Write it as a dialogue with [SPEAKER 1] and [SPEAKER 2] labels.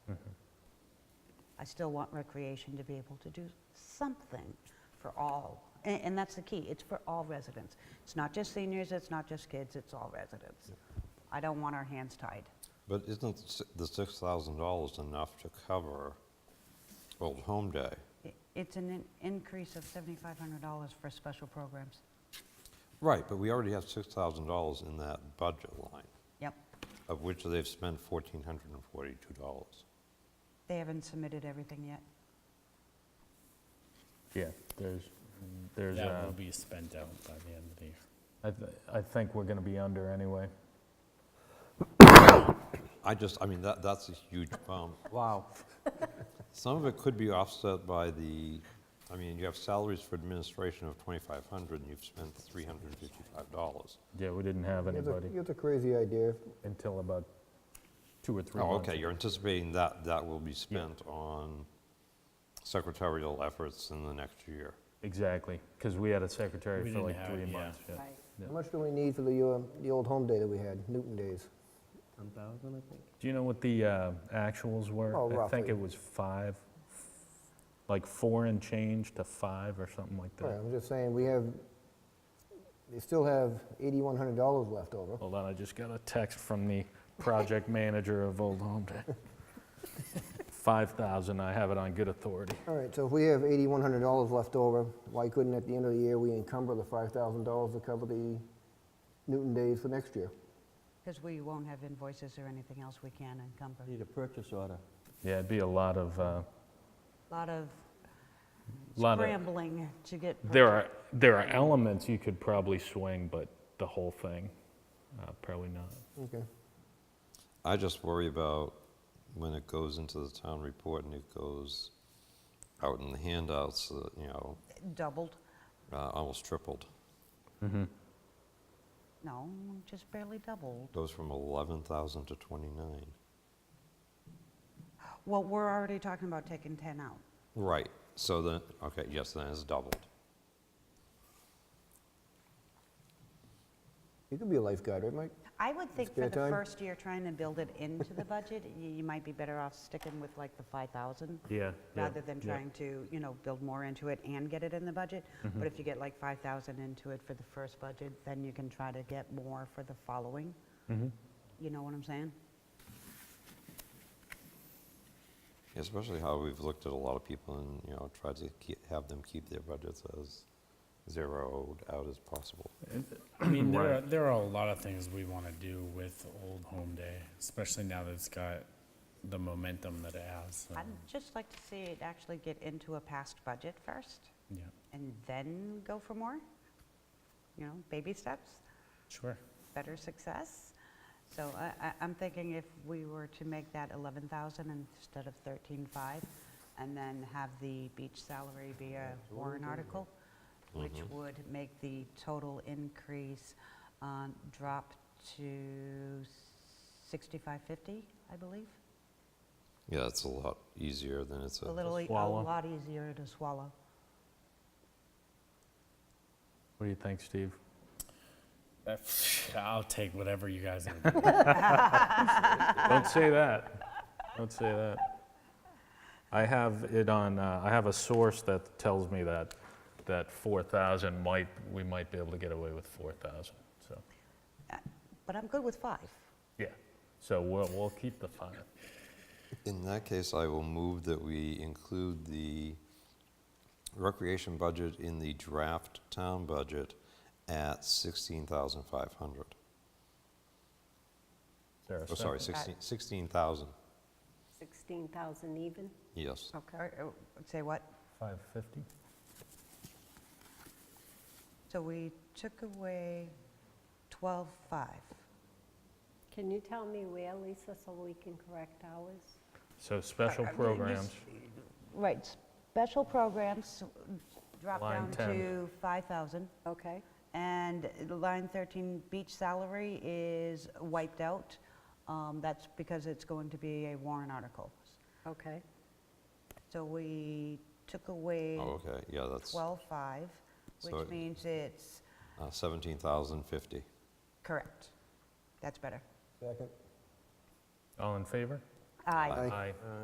[SPEAKER 1] I still want recreation to be able to do something for all. A- And that's the key, it's for all residents. It's not just seniors, it's not just kids, it's all residents. I don't want our hands tied.
[SPEAKER 2] But isn't s- the $6,000 enough to cover Old Home Day?
[SPEAKER 1] I- It's an in- increase of $7,500 for special programs.
[SPEAKER 2] Right, but we already have $6,000 in that budget line,
[SPEAKER 1] Yep,
[SPEAKER 2] of which they've spent $1,442.
[SPEAKER 1] they haven't submitted everything yet.
[SPEAKER 3] Yeah, there's, there's,
[SPEAKER 4] That
[SPEAKER 3] uh,
[SPEAKER 4] will be spent out by the end of the year.
[SPEAKER 3] I th- I think we're going to be under anyway.
[SPEAKER 2] I just, I mean, that, that's a huge bump.
[SPEAKER 3] Wow.
[SPEAKER 2] Some of it could be offset by the, I mean, you have salaries for administration of 2,500, and you've spent $355.
[SPEAKER 3] Yeah, we didn't have
[SPEAKER 5] You have a-
[SPEAKER 3] anybody
[SPEAKER 5] You have a crazy idea.
[SPEAKER 3] until about two or three
[SPEAKER 2] Oh,
[SPEAKER 3] months.
[SPEAKER 2] okay, you're anticipating that that will be spent on secretarial efforts in the next year.
[SPEAKER 3] Exactly, because we had a secretary
[SPEAKER 4] We
[SPEAKER 3] for
[SPEAKER 4] didn't
[SPEAKER 3] like
[SPEAKER 4] have-
[SPEAKER 3] three
[SPEAKER 4] yeah.
[SPEAKER 3] months. yeah.
[SPEAKER 5] How much do we need for the, uh, the old home day that we had, Newton Days?
[SPEAKER 6] 10,000, I think.
[SPEAKER 3] Do you know what the uh, actuals were?
[SPEAKER 5] Oh,
[SPEAKER 3] I think
[SPEAKER 5] roughly.
[SPEAKER 3] it was five, like four and change to five or something like
[SPEAKER 5] Right,
[SPEAKER 3] that.
[SPEAKER 5] I'm just saying, we have, they still have eighty-one hundred dollars left over.
[SPEAKER 3] Hold on, I just got a text from the project manager of Old Home Day. 5,000, I have it on good authority.
[SPEAKER 5] All right, so if we have eighty-one hundred dollars left over, why couldn't at the end of the year, we encumber the five thousand dollars to cover the Newton Days for next year?
[SPEAKER 1] Because we won't have invoices or anything else we can encumber.
[SPEAKER 6] Need a purchase order.
[SPEAKER 3] Yeah, it'd be a lot of, uh,
[SPEAKER 1] Lot of
[SPEAKER 3] lot of
[SPEAKER 1] scrambling to get.
[SPEAKER 3] There are, there are elements you could probably swing, but the whole thing, uh, probably not.
[SPEAKER 5] Okay.
[SPEAKER 2] I just worry about when it goes into the town report and it goes out in the handouts, uh, you know,
[SPEAKER 1] Doubled,
[SPEAKER 2] uh, almost tripled.
[SPEAKER 1] no, just barely doubled.
[SPEAKER 2] Goes from 11,000 to 29.
[SPEAKER 1] Well, we're already talking about taking 10 out.
[SPEAKER 2] Right, so then, okay, yes, then it's doubled.
[SPEAKER 5] You could be a lifeguard, right, Mike?
[SPEAKER 1] I would think for
[SPEAKER 5] Spare
[SPEAKER 1] the
[SPEAKER 5] time?
[SPEAKER 1] first year, trying to build it into the budget, y- you might be better off sticking with like the 5,000.
[SPEAKER 3] Yeah, yeah,
[SPEAKER 1] Rather than
[SPEAKER 3] yeah.
[SPEAKER 1] trying to, you know, build more into it and get it in the budget.
[SPEAKER 3] Mm-hmm.
[SPEAKER 1] But if you get like 5,000 into it for the first budget, then you can try to get more for the following.
[SPEAKER 3] Mm-hmm.
[SPEAKER 1] You know what I'm saying?
[SPEAKER 2] Especially how we've looked at a lot of people and, you know, tried to keep, have them keep their budgets as zeroed out as possible.
[SPEAKER 4] I mean, there are, there are a lot of things we want to do with Old Home Day, especially now that it's got the momentum that it has. so,
[SPEAKER 1] I'd just like to see it actually get into a past budget first
[SPEAKER 4] Yeah,
[SPEAKER 1] and then go for more. You know, baby steps.
[SPEAKER 4] sure.
[SPEAKER 1] better success. So I, I, I'm thinking if we were to make that 11,000 instead of 13,500, and then have the beach salary be a warrant article, which would make the total increase uh, drop to 6550, I believe.
[SPEAKER 2] Yeah, it's a lot easier than it's a.
[SPEAKER 1] A little, e- a
[SPEAKER 3] swallow.
[SPEAKER 1] lot easier to swallow.
[SPEAKER 3] What do you think, Steve?
[SPEAKER 4] That- I'll take whatever you guys are doing.
[SPEAKER 3] Don't say that. Don't say that. I have it on, uh, I have a source that tells me that, that 4,000 might, we might be able to get away with 4,000, so,
[SPEAKER 1] But I'm good with five.
[SPEAKER 3] yeah. So we'll, we'll keep the five.
[SPEAKER 2] In that case, I will move that we include the recreation budget in the draft town budget at 16,500.
[SPEAKER 3] Is there a
[SPEAKER 2] Oh, sorry,
[SPEAKER 3] second?
[SPEAKER 2] 16 16,000,
[SPEAKER 7] 16,000 even?
[SPEAKER 2] yes.
[SPEAKER 1] Okay. Say what?
[SPEAKER 3] 550?
[SPEAKER 1] So we took away 12,500.
[SPEAKER 7] Can you tell me where, Lisa, so we can correct ours?
[SPEAKER 3] So special programs,
[SPEAKER 1] Right, special programs drop
[SPEAKER 3] Line
[SPEAKER 1] down
[SPEAKER 3] 10.
[SPEAKER 1] to 5,000.
[SPEAKER 7] Okay.
[SPEAKER 1] And line 13, beach salary is wiped out. Um, That's because it's going to be a warrant article.
[SPEAKER 7] Okay.
[SPEAKER 1] So we took away
[SPEAKER 2] Oh, okay, yeah, that's
[SPEAKER 1] 12.5,
[SPEAKER 2] So
[SPEAKER 1] which
[SPEAKER 2] it-
[SPEAKER 1] means it's,
[SPEAKER 2] uh, 17,050.
[SPEAKER 1] correct. That's better.
[SPEAKER 5] Second.
[SPEAKER 3] all in favor?
[SPEAKER 1] Aye.
[SPEAKER 2] Aye.
[SPEAKER 3] Aye.